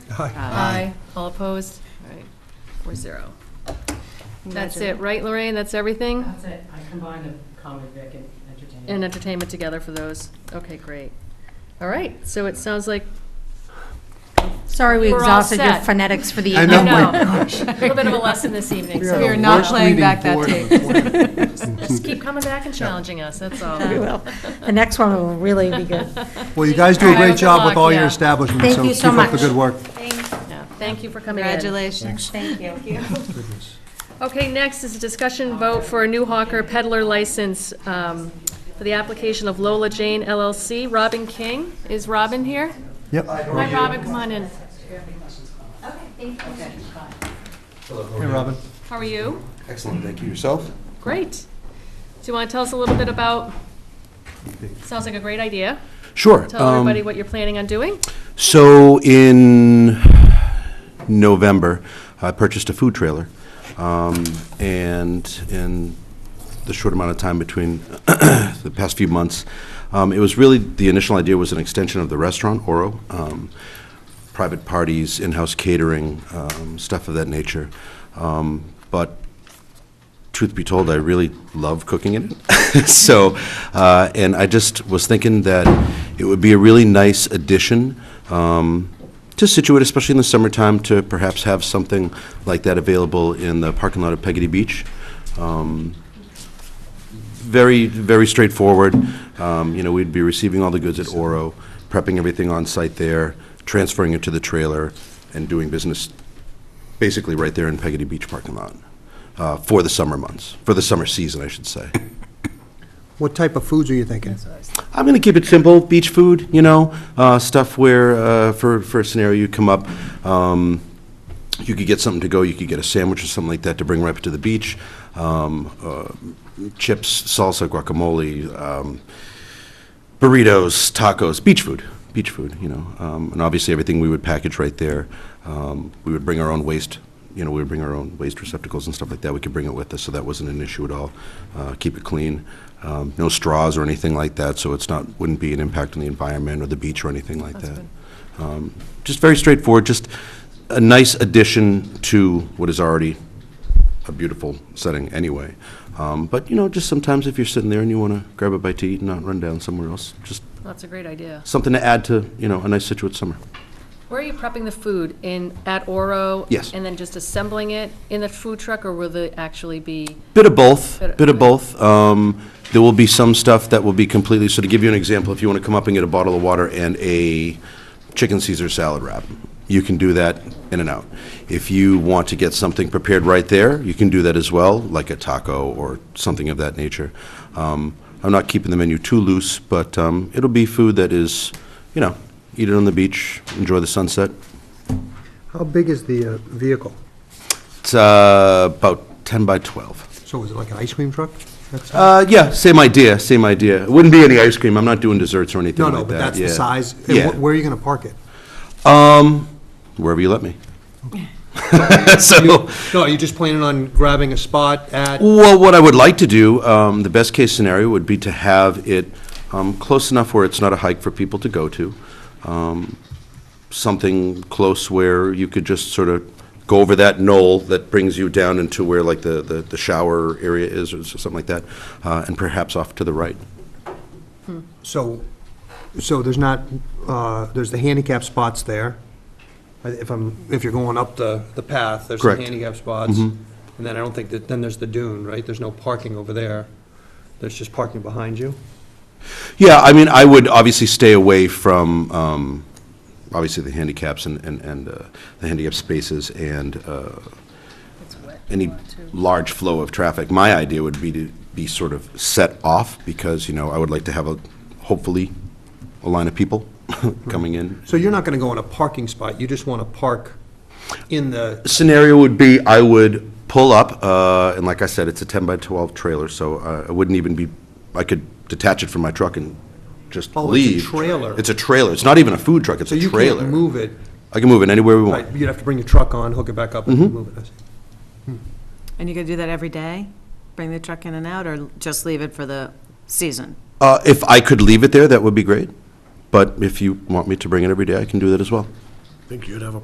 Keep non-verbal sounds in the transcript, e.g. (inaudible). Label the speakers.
Speaker 1: Aye. All opposed? All right, four zero. That's it, right, Lorraine? That's everything?
Speaker 2: That's it, I combined a comedy Vic and entertainment.
Speaker 1: And entertainment together for those? Okay, great. All right, so it sounds
Speaker 3: (laughs)
Speaker 1: like
Speaker 4: Sorry, we
Speaker 1: We're all
Speaker 4: exhausted your
Speaker 1: set.
Speaker 4: phonetics for the
Speaker 3: I
Speaker 4: evening.
Speaker 3: know, Oh my
Speaker 1: No.
Speaker 3: (laughs)
Speaker 1: (laughs)
Speaker 3: gosh.
Speaker 1: a little bit of a
Speaker 3: (laughs)
Speaker 1: lesson this evening.
Speaker 3: are
Speaker 1: So
Speaker 3: the
Speaker 5: are not
Speaker 3: worst
Speaker 5: playing
Speaker 3: reading
Speaker 5: back that
Speaker 3: board of
Speaker 5: tape.
Speaker 3: the planet.
Speaker 1: (laughs) Just keep coming back and challenging us, that's all.
Speaker 4: Very well. The next one will really be good.
Speaker 3: Well, you guys do a
Speaker 1: All right,
Speaker 3: great
Speaker 1: good
Speaker 3: job with
Speaker 1: luck,
Speaker 3: all your
Speaker 1: yeah.
Speaker 3: establishments,
Speaker 4: Thank
Speaker 3: so
Speaker 4: you
Speaker 3: keep
Speaker 4: so
Speaker 3: up the
Speaker 4: much.
Speaker 3: good work.
Speaker 1: Yeah, Thank you for coming in.
Speaker 5: Congratulations, thank you.
Speaker 1: Okay, next is a discussion vote for a new hawker peddler license um, for the application of Lola Jane LLC. Robin King, is Robin here?
Speaker 3: Yep.
Speaker 1: Hi, Robin, come on in.
Speaker 3: Hey, Robin.
Speaker 1: How are you?
Speaker 6: Excellent, thank you. Yourself?
Speaker 1: Great. Do you want to tell us a little bit about, sounds like a great idea.
Speaker 6: Sure.
Speaker 1: Tell
Speaker 6: Um,
Speaker 1: everybody what you're planning on doing.
Speaker 6: So in November, I purchased a food trailer. um, And in the short amount of time between (clears throat) the past few months, um, it was really, the initial idea was an extension of the restaurant, Oro. um, Private parties, in-house catering, um, stuff of that nature. Um, But truth be told, I really love cooking it. (laughs) so, uh, and I just was thinking that it would be a really nice addition um, to Situate, especially in the summertime, to perhaps have something like that available in the parking lot of Peggotty Beach. Um, very, very straightforward. Um, You know, we'd be receiving all the goods at Oro, prepping everything on site there, transferring it to the trailer, and doing business basically right there in Peggotty Beach parking lot uh, for the summer months, for the summer season, I should say.
Speaker 3: What type of foods are you thinking?
Speaker 6: (laughs) I'm going to keep it simple, beach food, you know, uh, stuff where, uh, for, for a scenario you come up, um, you could get something to go, you could get a sandwich or something like that to bring right up to the beach, um, uh, chips, salsa, guacamole, um, burritos, tacos, beach food, beach food, you know. Um, and obviously, everything we would package right there. Um, we would bring our own waste, you know, we would bring our own waste receptacles and stuff like that. We could bring it with us, so that wasn't an issue at all. Uh, keep it clean, um, no straws or anything like that, so it's not wouldn't be an impact on the environment or the beach or anything like that. Um, just very straightforward, just a nice addition to what is already a beautiful setting anyway. Um, but you know, just sometimes if you're sitting there and you want to grab a bite to eat and not run down somewhere else, just
Speaker 1: That's a great idea.
Speaker 6: something to add to you know a nice Situate summer.
Speaker 1: Where are you prepping the food? In, at Oro?
Speaker 6: Yes.
Speaker 1: And then just assembling it in the food truck, or will they actually be?
Speaker 6: Bit of both.
Speaker 1: Bit of-
Speaker 6: Bit of both. Um, there will be some stuff that will be completely. So to give you an example, if you want to come up and get a bottle of water and a chicken Caesar salad wrap, you can do that in and out. If you want to get something prepared right there, you can do that as well, like a taco or something of that nature. Um, I'm not keeping the menu too loose, but um, it'll be food that is, you know, eat it on the beach, enjoy the sunset.
Speaker 3: How big is the uh, vehicle?
Speaker 6: It's uh, about 10 by 12.
Speaker 3: So is it like an ice cream truck? That's-
Speaker 6: Uh, yeah, same idea, same idea. It Wouldn't be any ice cream, I'm not doing desserts or anything
Speaker 3: No,
Speaker 6: like that.
Speaker 3: no, but that's the
Speaker 6: yeah.
Speaker 3: size. And
Speaker 6: Yeah,
Speaker 3: wh- Where are you going to park it?
Speaker 6: um, wherever you let me. (laughs) So,
Speaker 3: No, are you just planning on grabbing a spot at?
Speaker 6: well, what I would like to do, um, the best-case scenario would be to have it, um, close enough where it's not a hike for people to go to. Um, something close where you could just sort of go over that knoll that brings you down into where like the, the the shower area is or something like that, uh, and perhaps off to the right.
Speaker 3: So, so there's not, uh, there's the handicap spots there. I- If I'm, if you're going up the, the path, there's some
Speaker 6: Correct. Mm-hmm.
Speaker 3: handicap spots. And then I don't think that, then there's the dune, right? There's no parking over there. There's just parking behind you.
Speaker 6: Yeah, I mean, I would obviously stay away from, um, obviously, the handicaps and, and, and uh, the handicap spaces and uh, any large flow of traffic. My idea would be to be sort of set off, because, you know, I would like to have a, hopefully, a line of people (laughs) coming in.
Speaker 3: So you're not going to go in a parking spot, you just want to park in the,
Speaker 6: Scenario would be, I would pull up, uh, and like I said, it's a 10 by 12 trailer, so uh, I wouldn't even be, I could detach it from my truck and just
Speaker 3: Oh, it's a
Speaker 6: leave.
Speaker 3: trailer.
Speaker 6: It's a trailer. It's not even a food truck, it's
Speaker 3: so
Speaker 6: a
Speaker 3: you
Speaker 6: trailer.
Speaker 3: can't move it.
Speaker 6: I can move it anywhere we
Speaker 3: Right,
Speaker 6: want.
Speaker 3: you'd have to bring your truck on, hook it back up and move it. I see.
Speaker 5: And you gonna do that every day? Bring the truck in and out, or just leave it for the season?
Speaker 6: Uh, If I could leave it there, that would be great, but if you want me to bring it every day, I can do that as well.
Speaker 7: Think you'd have a